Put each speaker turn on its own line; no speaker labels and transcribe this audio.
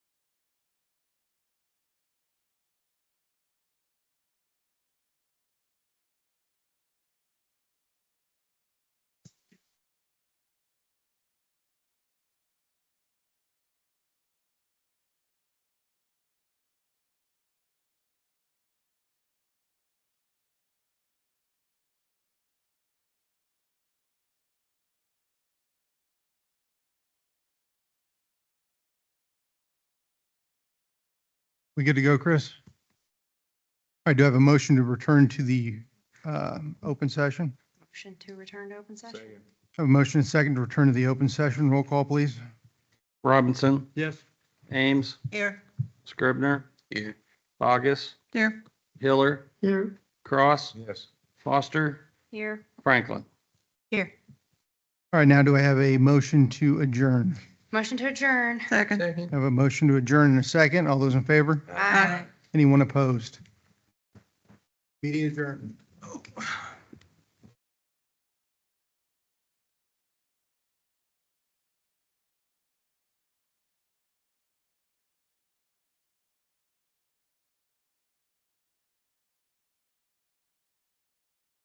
We good to go, Chris? All right, do I have a motion to return to the um, open session?
Motion to return to open session?
Have a motion and second to return to the open session. Roll call, please.
Robinson,
Yes.
Ames,
Here.
Scribner. Here. Bogus,
Here.
Hiller,
Here.
Cross,
Yes.
Foster,
Here,
Franklin.
Here.
All right, now do I have a motion to adjourn?
motion to adjourn.
Second.
I Have a motion to adjourn in a second. All those in favor?
Aye.
Anyone opposed? Meeting adjourned.